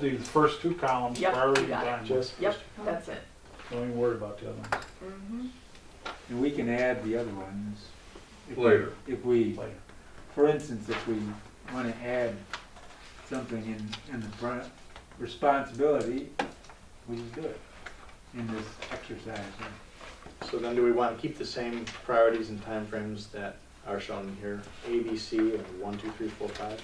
The first two columns Yep, are already you got it. done. Just- Yep, that's it. Don't even worry about the other ones. Mhm. And we can add the other ones. if we- Later. If we, Later. for instance, if we want to add something in, in the front, responsibility, we can do it in this exercise. So then do we want to keep the same priorities and timeframes that are shown here? A, B, C, and one, two, three, four, five?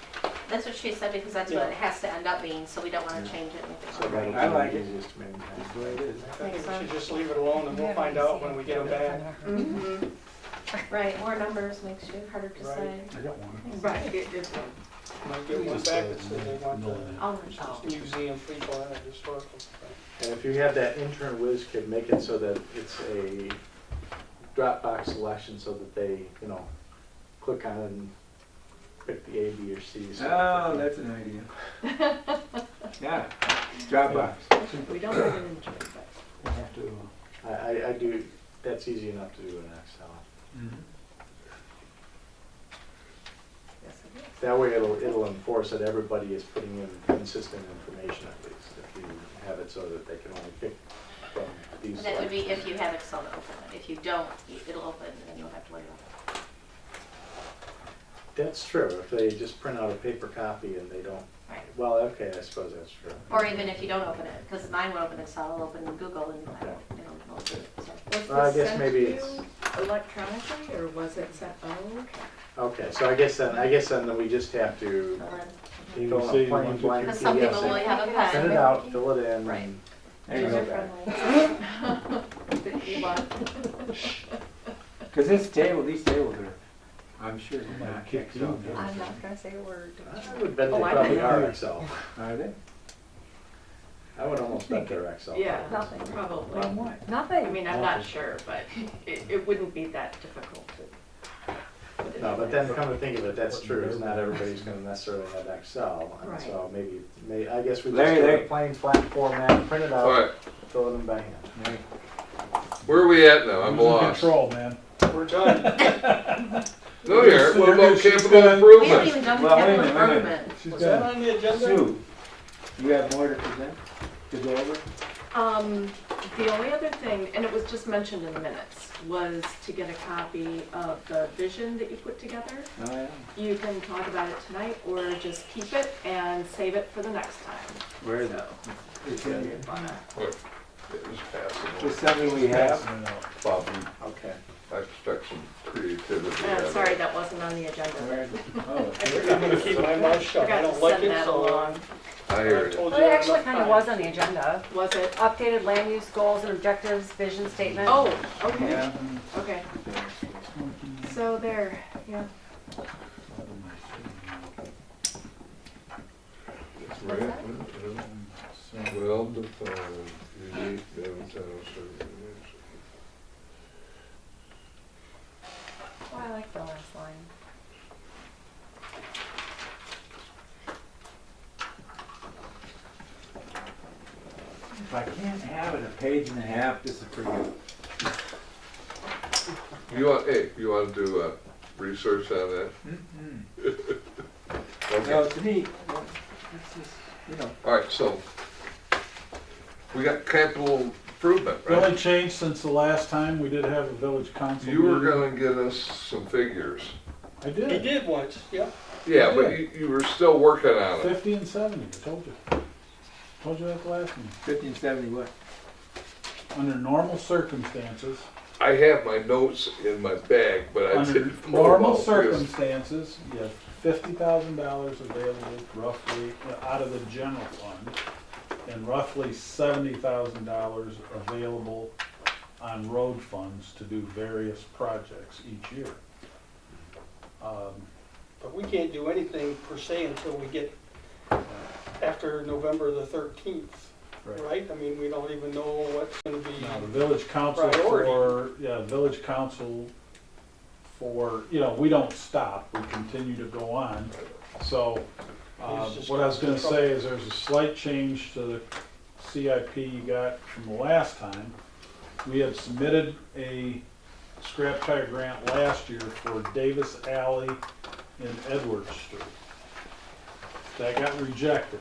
That's what she said, because that's what it has to end up being, so we don't wanna Yeah. change it. So anything. that'll I like be it. the easiest to maintain. That's the way it is. I think we should just leave it alone and we'll find out when we get them back. Mm-hmm. Mhm. Right, more numbers makes you harder to Right. say. I got one. Right, it- it's- Might get one back uh, that says they want the All Oh. in all. museum people and the historical. stuff. And if you have that intern whiz kid, make it so that it's a Dropbox selection so that they, you know, click on and pick the A, B, or C. so that Oh, they- that's an idea. Yeah, Dropbox. We don't have an injury, but. We'll have to, uh, I, I, I do, that's easy enough to do in Excel. Yes, it is. That way it'll, it'll enforce that everybody is putting in consistent information at least. If you have it so that they can only pick from these. That would be if you have Excel to open it. If you don't, it'll open and you'll have to worry about it. That's true, if they just print out a paper copy and they don't, Right. well, okay, I suppose that's true. Or even if you don't open it, because mine will open Excel, it'll open Google and I don't, I don't know. so. Was Well, I this guess sent maybe to it's- you Electronically, or was it sent, oh, okay. Okay, so I guess then, I guess then that we just have to Fill in. You fill see, in a plain one, two, blank Because some people PDF, will and only have a print it pen. out, fill it in. Right. and- There you Mm-hmm. go. User-friendly. That you want. Because this table, these tables are, I'm sure they're Might not kick Excel you. tables. I'm I'm not gonna say a word. I would bet they Oh, I probably bet. are Excel. Are they? I would almost bet they're Excel. Yeah, Nothing. On probably. what? I Nothing. mean, I'm not sure, but it, it wouldn't be that difficult to. put it No, in but there. then come to think of it, that's true, is not everybody's gonna necessarily have Excel, and so maybe, may, I guess we just Larry, do a Larry. plain flat format, print it All out, right, fill it in by hand. Right. where are we at now? I'm losing lost. Control, man. We're done. No, you aren't. What about She's capital done. We haven't improvement? even done Well, wait a capital minute, wait a minute. improvement. She's Was that done. on the agenda? Sue, you have more to present, to go over? Um, the only other thing, and it was just mentioned in the minutes, was to get a copy of the vision that you put together. Oh, yeah. You can talk about it tonight or just keep it and save it for the next time. Where is it? So, It's in here. What? It was passable. It's something we have. Passing it out. Bob, Okay. I expect some creativity. out I'm of Oh, uh, sorry, it. that wasn't on the agenda. Where is it? Oh, I I'm gonna keep my mouth shut. forgot to I don't like send it, that so. uh, along. I I hear you. told Well, you it I'm actually not kind of fine. was on the agenda. Was it? Updated land use goals and objectives, vision statement. Oh, okay, yeah. okay. So there, yeah. Right. Well defined, unique downtown service. Oh, I like the last line. If I can't have it a page and a half, this is for you. You want, hey, you want to do, uh, research on that? Mm-mm. Okay, No, to me, it's just, you know, all right, so we got capital improvement, The only right? change since the last time, we did have a village council You were meeting. gonna get us some figures. I He did, did once, yep. Yeah, but you, you were still working on it. fifty and seventy, I told you. Told you that the last one. fifty and seventy what? Under normal circumstances, I have my notes in my bag, but I under didn't. know normal about this. circumstances, you have fifty thousand dollars available roughly out of the general fund and roughly seventy thousand dollars available on road funds to do various projects each year. Um, But we can't do anything per se until we get uh, after November the thirteenth, Right. right? I mean, we don't even know what's gonna be. Now, the village council Priority. for, yeah, village council for, you know, we don't stop, we continue to go on. So, uh, He's just what I was gonna causing say is there's a slight change to the CIP you got from the last time. We had submitted a scrap tire grant last year for Davis Alley and Edwards Street. That got rejected.